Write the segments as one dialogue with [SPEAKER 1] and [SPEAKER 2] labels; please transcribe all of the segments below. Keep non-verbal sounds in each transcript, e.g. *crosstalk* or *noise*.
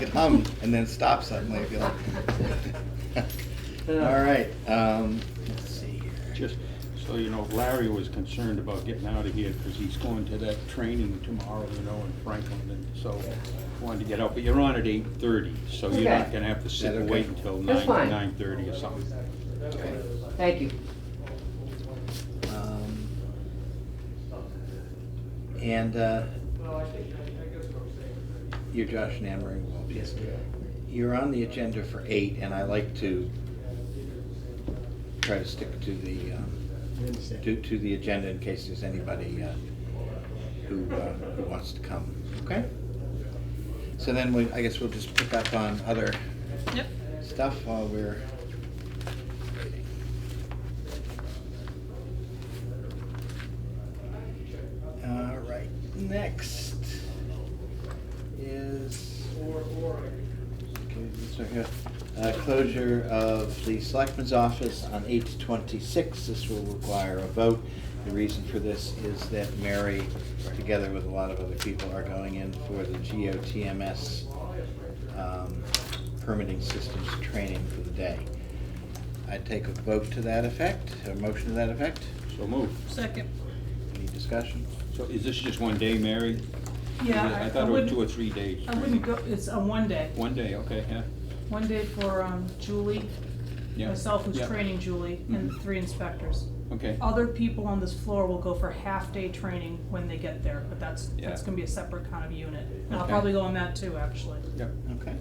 [SPEAKER 1] hum and then stop suddenly, if you like. *laughs* All right, um, let's see here.
[SPEAKER 2] Just so you know, Larry was concerned about getting out of here because he's going to that training tomorrow, you know, in Franklin, and so wanted to get out, but you're on at eight thirty, so you're not
[SPEAKER 3] Okay.
[SPEAKER 2] gonna have to sit
[SPEAKER 1] Is that
[SPEAKER 2] and
[SPEAKER 1] okay?
[SPEAKER 2] wait until
[SPEAKER 3] That's
[SPEAKER 2] nine,
[SPEAKER 3] fine.
[SPEAKER 2] nine thirty or something.
[SPEAKER 1] Okay.
[SPEAKER 3] Thank you.
[SPEAKER 1] Um, And, uh, you're Josh Nammering, well, yes. You're on the agenda for eight, and I like to try to stick to the, um, to, to the agenda in case there's anybody uh, who, uh, who wants to come, okay? So then we, I guess we'll just pick up on other
[SPEAKER 4] Yep.
[SPEAKER 1] stuff while we're waiting. All right, next is, okay, these are here. Uh, closure of the selectman's office on eight twenty-six. This will require a vote. The reason for this is that Mary, together with a lot of other people, are going in for the GOTMS um, permitting systems training for the day. I'd take a vote to that effect, a motion to that effect.
[SPEAKER 2] So move.
[SPEAKER 4] Second.
[SPEAKER 1] Any discussion?
[SPEAKER 2] So is this just one day, Mary? Is it-
[SPEAKER 4] Yeah,
[SPEAKER 2] I
[SPEAKER 4] I-
[SPEAKER 2] thought
[SPEAKER 4] I
[SPEAKER 2] it was two or
[SPEAKER 4] wouldn't,
[SPEAKER 2] three days.
[SPEAKER 4] I wouldn't go, it's a one day,
[SPEAKER 2] One day, okay, yeah,
[SPEAKER 4] one day for um, Julie,
[SPEAKER 2] yeah.
[SPEAKER 4] myself who's
[SPEAKER 2] yeah,
[SPEAKER 4] training Julie, and
[SPEAKER 2] Mhm.
[SPEAKER 4] three inspectors.
[SPEAKER 2] Okay,
[SPEAKER 4] Other people on this floor will go for half-day training when they get there, but that's,
[SPEAKER 2] Yeah.
[SPEAKER 4] that's gonna be a separate kind of unit. And I'll
[SPEAKER 2] Okay.
[SPEAKER 4] probably go on that too, actually.
[SPEAKER 2] yeah.
[SPEAKER 1] Okay.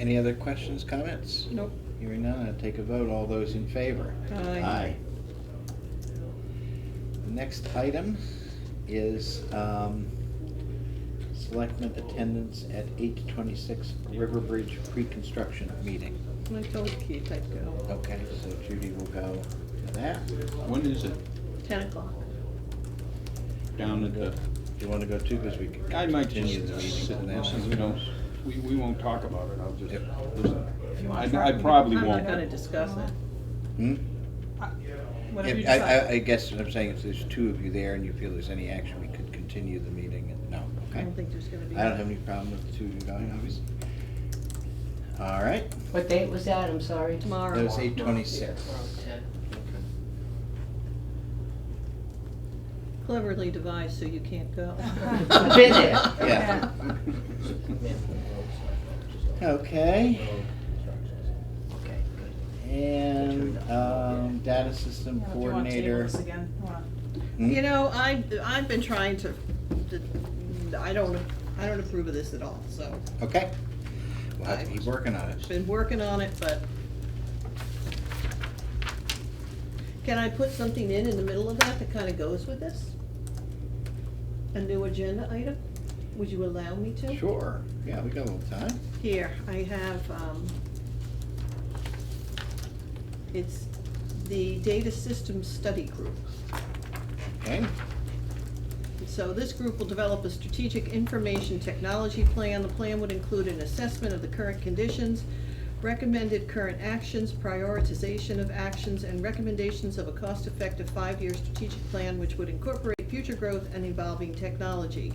[SPEAKER 1] Any other questions, comments?
[SPEAKER 4] Nope.
[SPEAKER 1] Hearing none, I'd take a vote. All those in favor?
[SPEAKER 4] Aye.
[SPEAKER 1] The next item is um, selectmen attendance at eight twenty-six River Bridge pre-construction meeting.
[SPEAKER 5] I told Keith I'd go,
[SPEAKER 1] Okay, so Judy will go to that.
[SPEAKER 2] When is it?
[SPEAKER 5] ten o'clock.
[SPEAKER 2] Down at the,
[SPEAKER 1] Do you want to go too, because we can
[SPEAKER 2] I might
[SPEAKER 1] continue the meeting
[SPEAKER 2] just sit
[SPEAKER 1] to
[SPEAKER 2] and
[SPEAKER 1] that.
[SPEAKER 2] listen, we don't, we, we won't talk about it, I'll just
[SPEAKER 1] Yep.
[SPEAKER 2] listen.
[SPEAKER 4] If you
[SPEAKER 2] I,
[SPEAKER 4] want to
[SPEAKER 2] I
[SPEAKER 4] try-
[SPEAKER 2] probably
[SPEAKER 5] I'm
[SPEAKER 2] won't.
[SPEAKER 5] not gonna discuss it.
[SPEAKER 1] Hmm?
[SPEAKER 4] Whatever you
[SPEAKER 1] Yeah, I- I, I
[SPEAKER 4] decide.
[SPEAKER 1] guess what I'm saying is there's two of you there and you feel there's any action, we could continue the meeting. and- No,
[SPEAKER 5] I
[SPEAKER 1] okay?
[SPEAKER 5] don't think there's gonna be.
[SPEAKER 1] I don't have any problem with the two of you going, obviously. All right,
[SPEAKER 3] What date was that? I'm sorry.
[SPEAKER 5] Tomorrow.
[SPEAKER 1] that was eight twenty-six.
[SPEAKER 5] Cleverly devised so you can't go.
[SPEAKER 3] *laughs*
[SPEAKER 4] I've
[SPEAKER 3] been there.
[SPEAKER 1] Yeah. Okay,
[SPEAKER 3] Okay, good.
[SPEAKER 1] and, um, data system
[SPEAKER 4] Yeah, if you wanna table
[SPEAKER 1] coordinator.
[SPEAKER 4] this again, you wanna-
[SPEAKER 1] Hmm?
[SPEAKER 5] You know, I, I've been trying to, to- I don't, I don't approve of this at all, so,
[SPEAKER 1] Okay, we'll have to keep working on it.
[SPEAKER 5] been working on it, but. Can I put something in in the middle of that that kinda goes with this? A new agenda item? Would you allow me to?
[SPEAKER 1] Sure, yeah, we got a little time.
[SPEAKER 5] Here, I have, um, it's the Data Systems Study Group.
[SPEAKER 1] Okay,
[SPEAKER 5] So this group will develop a strategic information technology plan. The plan would include an assessment of the current conditions, recommended current actions, prioritization of actions, and recommendations of a cost-effective five-year strategic plan which would incorporate future growth and evolving technology.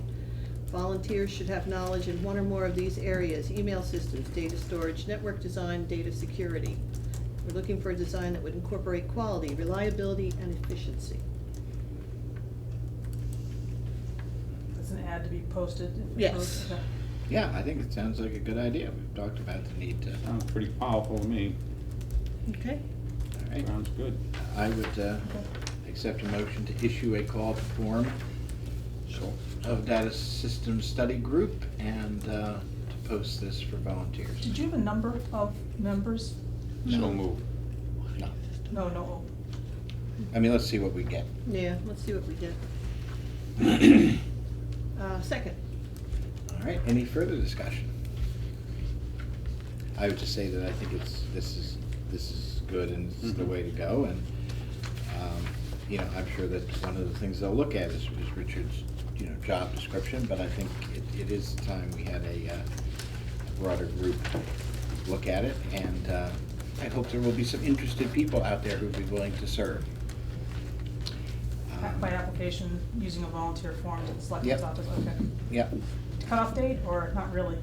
[SPEAKER 5] Volunteers should have knowledge in one or more of these areas, email systems, data storage, network design, data security. We're looking for a design that would incorporate quality, reliability, and efficiency.
[SPEAKER 4] It's an ad to be posted. if we
[SPEAKER 5] Yes.
[SPEAKER 4] post it.
[SPEAKER 1] yeah, I think it sounds like a good idea. We've talked about the need to, all
[SPEAKER 2] *laughs* Sounds pretty powerful to me,
[SPEAKER 5] Okay.
[SPEAKER 1] right.
[SPEAKER 2] sounds good.
[SPEAKER 1] I would uh, accept a motion to issue a call to form
[SPEAKER 2] So,
[SPEAKER 1] of Data Systems Study Group and uh, to post this for volunteers.
[SPEAKER 4] Did you have a number of members?
[SPEAKER 2] so move.
[SPEAKER 1] No.
[SPEAKER 4] No, no,
[SPEAKER 1] I mean, let's see what we get.
[SPEAKER 5] Yeah, let's see what we get. Uh, second,
[SPEAKER 1] All right, any further discussion? I would just say that I think it's, this is, this is good and this is the
[SPEAKER 2] Mhm.
[SPEAKER 1] way to go, and, um, you know, I'm sure that one of the things they'll look at is, is Richard's, you know, job description, but I think it, it is time we had a, uh, broader group look at it, and, uh, I hope there will be some interested people out there who'd be willing to serve.
[SPEAKER 4] by
[SPEAKER 1] Um,
[SPEAKER 4] application, using a volunteer form to the selectmen's
[SPEAKER 1] Yep.
[SPEAKER 4] office, okay.
[SPEAKER 1] Yep.
[SPEAKER 4] Cutoff date or not really?